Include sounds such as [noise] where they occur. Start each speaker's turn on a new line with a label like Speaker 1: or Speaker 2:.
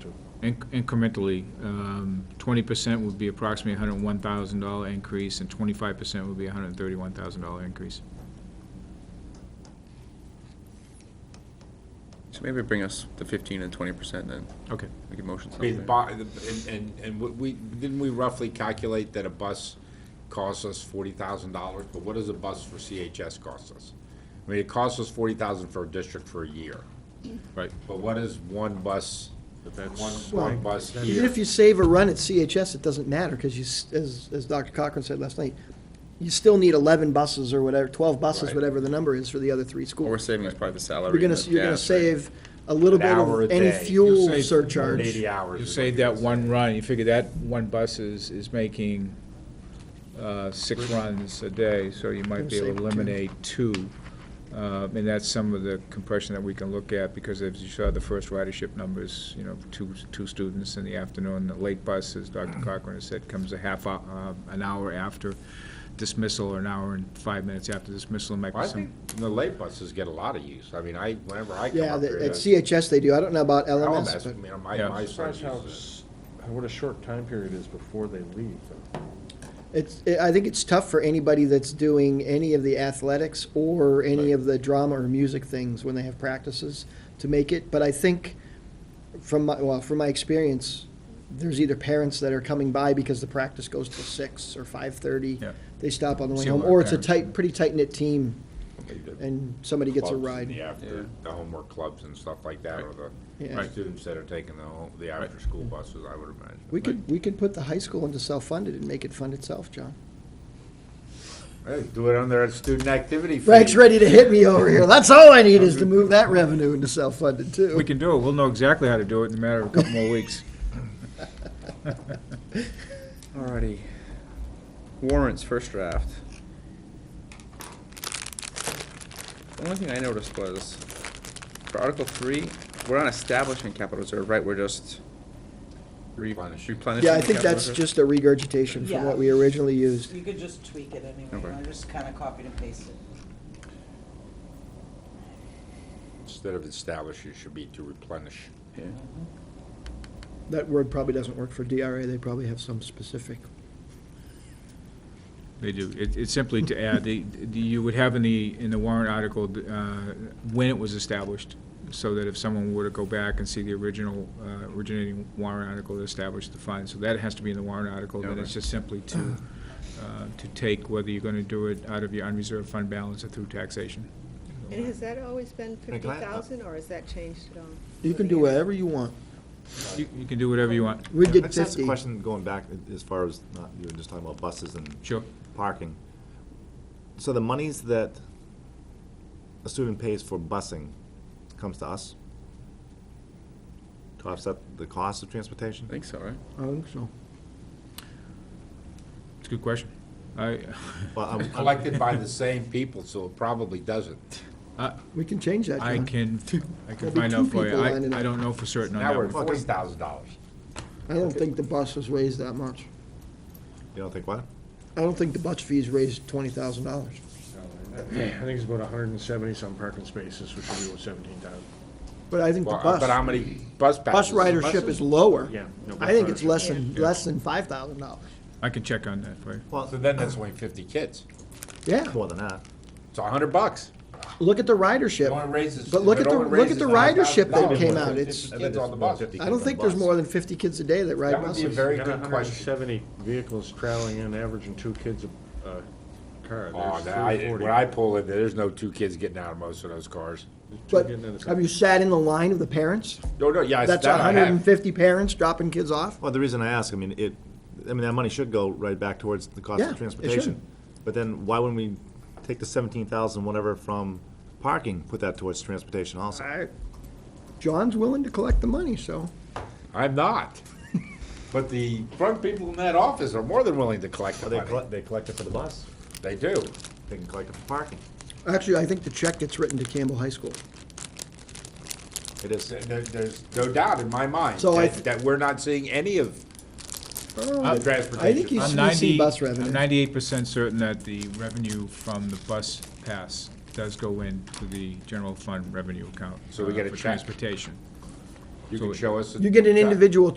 Speaker 1: to.
Speaker 2: Inc- Incrementally, um, twenty percent would be approximately hundred and one thousand dollar increase, and twenty-five percent would be hundred and thirty-one thousand dollar increase.
Speaker 3: So maybe bring us the fifteen and twenty percent, then
Speaker 2: Okay.
Speaker 3: we can motion
Speaker 1: I mean, the
Speaker 3: something.
Speaker 1: bo- the- and, and, and what we, didn't we roughly calculate that a bus costs us forty thousand dollars, but what does a bus for CHS cost us? I mean, it costs us forty thousand for a district for a year,
Speaker 2: Right.
Speaker 1: but what is one bus, one, one
Speaker 4: Well,
Speaker 1: bus
Speaker 4: Even
Speaker 1: here?
Speaker 4: if you save a run at CHS, it doesn't matter, because you, s- as, as Dr. Cochran said last night, you still need eleven buses or whatever, twelve buses,
Speaker 1: Right.
Speaker 4: whatever the number is for the other three
Speaker 3: What we're
Speaker 4: schools.
Speaker 3: saving is probably the salary.
Speaker 4: You're gonna,
Speaker 3: and the
Speaker 4: you're gonna
Speaker 3: gas, right?
Speaker 4: save a
Speaker 1: An
Speaker 4: little bit
Speaker 1: hour a
Speaker 4: of any
Speaker 1: day. You
Speaker 4: fuel
Speaker 1: save
Speaker 4: surcharge.
Speaker 1: Eighty hours.
Speaker 2: You
Speaker 1: is
Speaker 2: say
Speaker 1: what
Speaker 2: that
Speaker 1: you're
Speaker 2: one run, you figure that one bus is, is making uh, six runs a day, so you might be able to
Speaker 4: Gonna save two.
Speaker 2: eliminate two. Uh, And that's some of the compression that we can look at, because as you saw, the first ridership numbers, you know, two, two students in the afternoon, the late bus, as Dr.
Speaker 1: Mm.
Speaker 2: Cochran has said, comes a half, hou- uh, an hour after dismissal, or an hour and five minutes after dismissal, might
Speaker 1: Well, I
Speaker 2: be some.
Speaker 1: think the late buses get a lot of use. I mean, I, whenever I come
Speaker 4: Yeah,
Speaker 1: up here.
Speaker 4: the- at
Speaker 1: to
Speaker 4: CHS they do, I don't know about LMS,
Speaker 1: LMS,
Speaker 4: but
Speaker 1: I mean, my,
Speaker 2: Yeah.
Speaker 1: my son
Speaker 5: Surprised how,
Speaker 1: uses
Speaker 5: s- how- what a short time period is before they leave.
Speaker 4: it's, it- I think it's tough for anybody that's doing any of the athletics or any of the drama or music things when they have practices to make it, but I think from my, well, from my experience, there's either parents that are coming by because the practice goes till six or five-thirty.
Speaker 2: Yeah.
Speaker 4: They stop on the way
Speaker 2: See a
Speaker 4: home,
Speaker 2: lot of
Speaker 4: or it's a
Speaker 2: parents.
Speaker 4: tight, pretty tight-knit team,
Speaker 1: it.
Speaker 4: and somebody gets a
Speaker 1: clubs in
Speaker 4: ride.
Speaker 1: The after, the homework clubs and stuff like that, or
Speaker 4: Yeah.
Speaker 1: the
Speaker 4: Right.
Speaker 1: students that are taking the, home- the after-school buses, I would imagine.
Speaker 4: We could, we could put the high school into self-funded and make it fund itself, John.
Speaker 1: Hey, Do it under a student activity fee.
Speaker 4: Frank's ready to hit me over here. That's all I need is to move that revenue into self-funded too.
Speaker 2: We can do it, we'll know exactly how to do it in a matter of a couple more
Speaker 1: [laughs]
Speaker 2: weeks. [laughs]
Speaker 3: Alrighty. Warrants, first draft. The only thing I noticed was, for Article three, we're not establishing capital reserve, right, we're just re-
Speaker 1: Replenishing.
Speaker 3: replenishing.
Speaker 4: Yeah, I
Speaker 3: the
Speaker 4: think
Speaker 3: capital
Speaker 4: that's
Speaker 3: reserve?
Speaker 4: just a regurgitation from what we originally used.
Speaker 6: You could just tweak it anyway,
Speaker 3: Okay.
Speaker 6: I just kind of copied and pasted.
Speaker 1: Instead of establish, it should be to replenish.
Speaker 3: Yeah.
Speaker 4: That word probably doesn't work for DRA. They probably have some specific.
Speaker 2: They do. It- It's simply to add, the- the- you would have in the, in the warrant article, uh, when it was established, so that if someone were to go back and see the original, uh, originating warrant article that established the fund, so that has to be in the warrant article, then it's
Speaker 3: Okay.
Speaker 2: just simply to, uh, to take whether you're going to do it out of your unreserved fund balance or through taxation.
Speaker 7: And has that always been fifty thousand, or has that changed at all?
Speaker 4: You can do whatever you want.
Speaker 2: You you can do whatever you want.
Speaker 4: We
Speaker 5: I
Speaker 4: did
Speaker 5: just asked a
Speaker 4: fifty.
Speaker 5: question going back as far as, not, you were just talking about buses and
Speaker 2: Sure.
Speaker 5: parking. So the monies that a student pays for busing comes to us? To offset the cost of transportation?
Speaker 3: I think so, right?
Speaker 4: I think so.
Speaker 2: It's a good question. I,
Speaker 5: Well, I'm- I'm-
Speaker 1: Collected by the same people, so it probably doesn't.
Speaker 4: We can change that,
Speaker 2: I
Speaker 4: John.
Speaker 2: can, I can
Speaker 4: [laughs] There'll be
Speaker 2: find
Speaker 4: two
Speaker 2: out for you.
Speaker 4: people
Speaker 2: I
Speaker 4: lining up.
Speaker 2: I don't know for certain on
Speaker 1: Now
Speaker 2: that
Speaker 1: we're at
Speaker 2: one.
Speaker 1: forty thousand dollars.
Speaker 4: I don't think the bus was raised that much.
Speaker 5: You don't think what?
Speaker 4: I don't think the bus fees raised twenty thousand dollars.
Speaker 8: I think it's about hundred and seventy-some parking spaces, which would be about seventeen thousand.
Speaker 4: But I think the
Speaker 1: Well, uh, But how
Speaker 4: bus,
Speaker 1: many bus
Speaker 4: bus
Speaker 1: passes?
Speaker 4: ridership is lower.
Speaker 8: Yeah, no
Speaker 4: I think it's
Speaker 8: bus
Speaker 4: less than, less than five thousand dollars.
Speaker 2: I can check on that for you.
Speaker 1: So then that's only fifty kids.
Speaker 4: Yeah,
Speaker 5: More than that.
Speaker 1: It's a hundred bucks.
Speaker 4: look at the
Speaker 1: It only
Speaker 4: ridership.
Speaker 1: raises-
Speaker 4: But look
Speaker 1: it
Speaker 4: at the-
Speaker 1: only
Speaker 4: look at
Speaker 1: raises
Speaker 4: the
Speaker 1: $9,000
Speaker 4: ridership that came out.
Speaker 1: Fifty
Speaker 4: It's-
Speaker 1: Kids on the bus.
Speaker 4: I don't think there's more than fifty kids a day that ride
Speaker 1: That would be a
Speaker 4: buses.
Speaker 1: very
Speaker 8: Got
Speaker 1: good question.
Speaker 8: Seventy vehicles traveling in, averaging two kids a, a car.
Speaker 1: Oh,
Speaker 8: There's
Speaker 1: now, I,
Speaker 8: 340.
Speaker 1: when I pull in, there, there's no two kids getting out of most of those cars.
Speaker 8: Two
Speaker 4: But
Speaker 8: getting in the-
Speaker 4: have you sat in the line of the parents?
Speaker 1: No, no, yeah,
Speaker 4: That's
Speaker 1: that I have.
Speaker 4: hundred and fifty parents dropping kids off?
Speaker 5: Well, the reason I ask, I mean, it, I mean, that money should go right back towards the cost
Speaker 4: Yeah, it should.
Speaker 5: of transportation. But then why wouldn't we take the seventeen thousand, whatever, from parking, put that towards transportation also?
Speaker 4: I- John's willing to collect the money, so.
Speaker 1: I'm
Speaker 4: [laughs]
Speaker 1: not. But the front people in that office are more than willing to collect the
Speaker 5: Well, they
Speaker 1: money.
Speaker 5: collect, they collect it for the bus,
Speaker 1: They do.
Speaker 5: they can collect it for parking,
Speaker 4: Actually, I think the check gets written to Campbell High School.
Speaker 5: it is.
Speaker 1: There- there- There's no doubt in my mind
Speaker 4: So I
Speaker 1: that, that we're not seeing any of
Speaker 4: I think
Speaker 1: transportation.
Speaker 4: you
Speaker 2: I'm
Speaker 4: see- you
Speaker 2: 90
Speaker 4: see bus
Speaker 2: I'm
Speaker 4: revenue.
Speaker 2: ninety-eight percent certain that the revenue from the bus pass does go into the general fund revenue account.
Speaker 1: So we
Speaker 2: uh,
Speaker 1: get a
Speaker 2: For
Speaker 1: check.
Speaker 2: transportation.
Speaker 9: You can show us. a
Speaker 1: You get an
Speaker 9: chart.
Speaker 1: individual